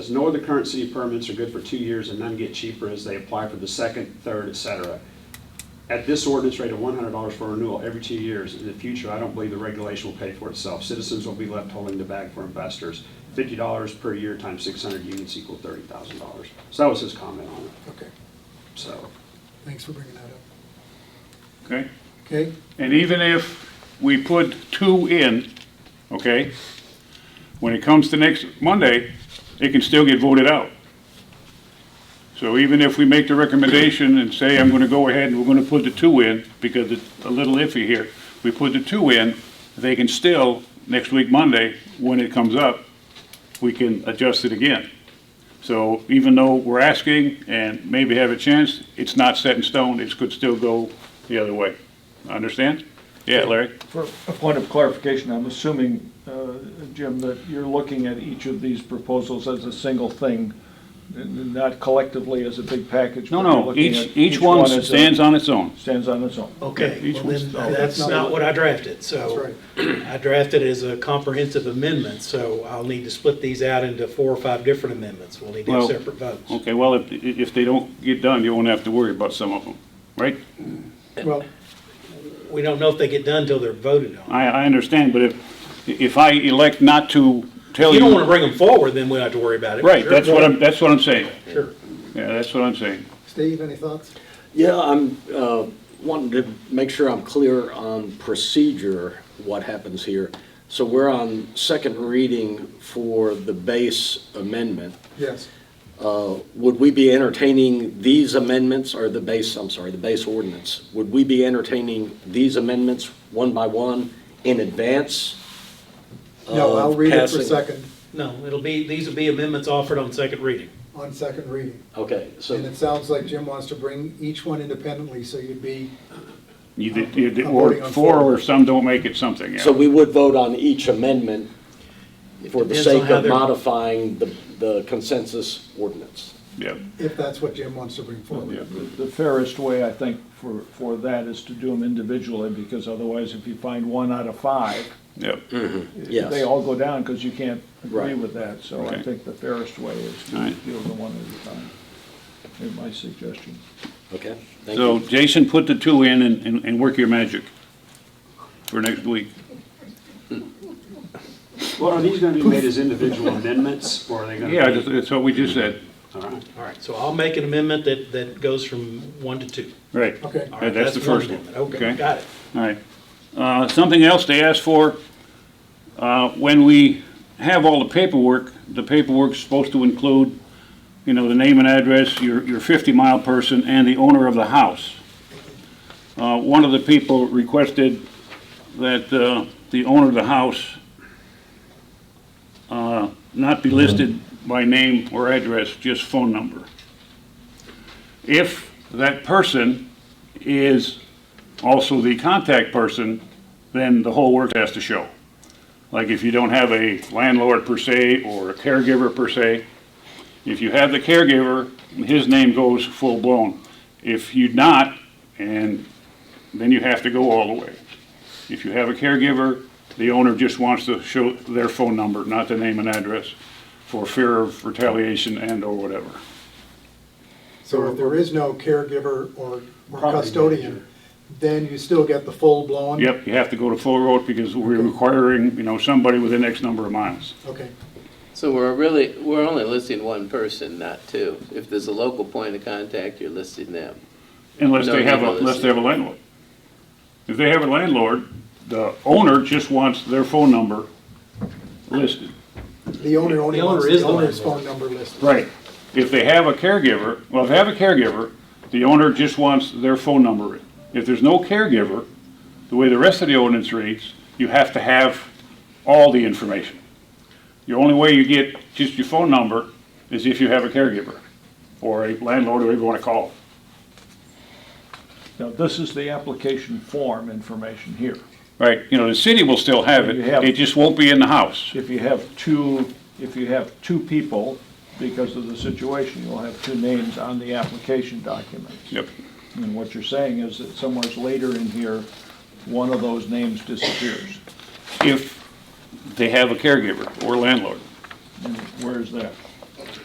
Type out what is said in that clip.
As no other current city permits are good for two years and none get cheaper as they apply for the second, third, et cetera. At this ordinance rate of one hundred dollars for renewal every two years, in the future, I don't believe the regulation will pay for itself. Citizens will be left holding the bag for investors. Fifty dollars per year times six hundred units equal thirty thousand dollars. So that was his comment on it, Okay, so. thanks for bringing that up. okay? Okay, And even if we put two in, okay, when it comes to next Monday, it can still get voted out. So even if we make the recommendation and say, I'm gonna go ahead and we're gonna put the two in, because it's a little iffy here, we put the two in, they can still, next week, Monday, when it comes up, we can adjust it again. So even though we're asking and maybe have a chance, it's not set in stone, it could still go the other way. Understand? Yeah, Larry? For a point of clarification, I'm assuming, uh, Jim, that you're looking at each of these proposals as a single thing, n- n- not collectively as a big package. No, but you're no, looking each, at each one as a- stands on its own. Stands on its own. Oh. Okay, each well one's- then, that's not what I drafted, so. I drafted it as a comprehensive amendment, so I'll need to split these out into four or five different amendments. We'll need to have Well- separate votes. Okay, well, if, if they don't get done, you won't have to worry about some of them, right? well, We don't know if they get done until they're voted on. I, I understand, but if, if I elect not to tell You you. don't want to bring them forward, then we don't have to worry about it. Right, Sure. that's what I'm, that's what I'm saying. Sure. Yeah, that's what I'm saying. Steve, any thoughts? Yeah, I'm uh, wanting to make sure I'm clear on procedure, what happens here. So we're on second reading for the base amendment. Yes. Uh, Would we be entertaining these amendments, or the base, I'm sorry, the base ordinance? Would we be entertaining these amendments one by one in advance? No, I'll of read it for passing? second, No, it'll be, these will be amendments offered on second reading. on second reading. Okay, so. And it sounds like Jim wants to bring each one independently, so you'd be, You did, you did, I'm or voting on four four. or some don't make it something, yeah. So we would vote on each amendment for the Depends on sake how of they're- modifying the the consensus ordinance. Yeah, if that's what Jim wants to bring yeah. forward. The fairest way, I think, for, for that is to do them individually, because otherwise, if you find one out of five, yeah. Yes. they all go down, because you can't agree Right. with that. So I Right. think the fairest way is to Right. deal with them one at a time, is my suggestion. Okay, thank So you. Jason, put the two in and, and- and work your magic for next week. Well, are these gonna be made as individual amendments, or are they gonna be? Yeah, that's, that's what we just said. All right. All right, so I'll make an amendment that, that goes from one to two. Right. Okay. All Yeah, right, that's the one first one. amendment. Okay, got it. All right. Uh, Something else they asked for, uh, when we have all the paperwork, the paperwork's supposed to include, you know, the name and address, your, your 50-mile person, and the owner of the house. Uh, One of the people requested that uh, the owner of the house uh, not be listed by name or address, just phone number. If that person is also the contact person, then the whole work has to show. Like if you don't have a landlord per se or a caregiver per se, if you have the caregiver, his name goes full blown. If you not, and then you have to go all the way. If you have a caregiver, the owner just wants to show their phone number, not the name and address, for fear of retaliation and or whatever. So if there is no caregiver or or Property custodian, manager. then you still get the full blown? Yep, you have to go to full road because we're requiring, you know, somebody within X number of miles. Okay, So we're really, we're only listing one person, not two. If there's a local point of contact, you're listing them. Unless No, they have, a no, unless they have a landlord. If they have a landlord, the owner just wants their phone number listed. the owner only The owner wants is the the owner's phone landlord. number listed. Right. If they have a caregiver, well, if they have a caregiver, the owner just wants their phone number. If there's no caregiver, the way the rest of the ordinance reads, you have to have all the information. The only way you get just your phone number is if you have a caregiver, or a landlord, or whatever you wanna call it. Now, this is the application form information here. Right, you know, the city will still have it, You have- it just won't be in the house. If you have two, if you have two people, because of the situation, you'll have two names on the application documents. Yep. And what you're saying is that somewhere's later in here, one of those names disappears. If they have a caregiver or landlord. And Where is that?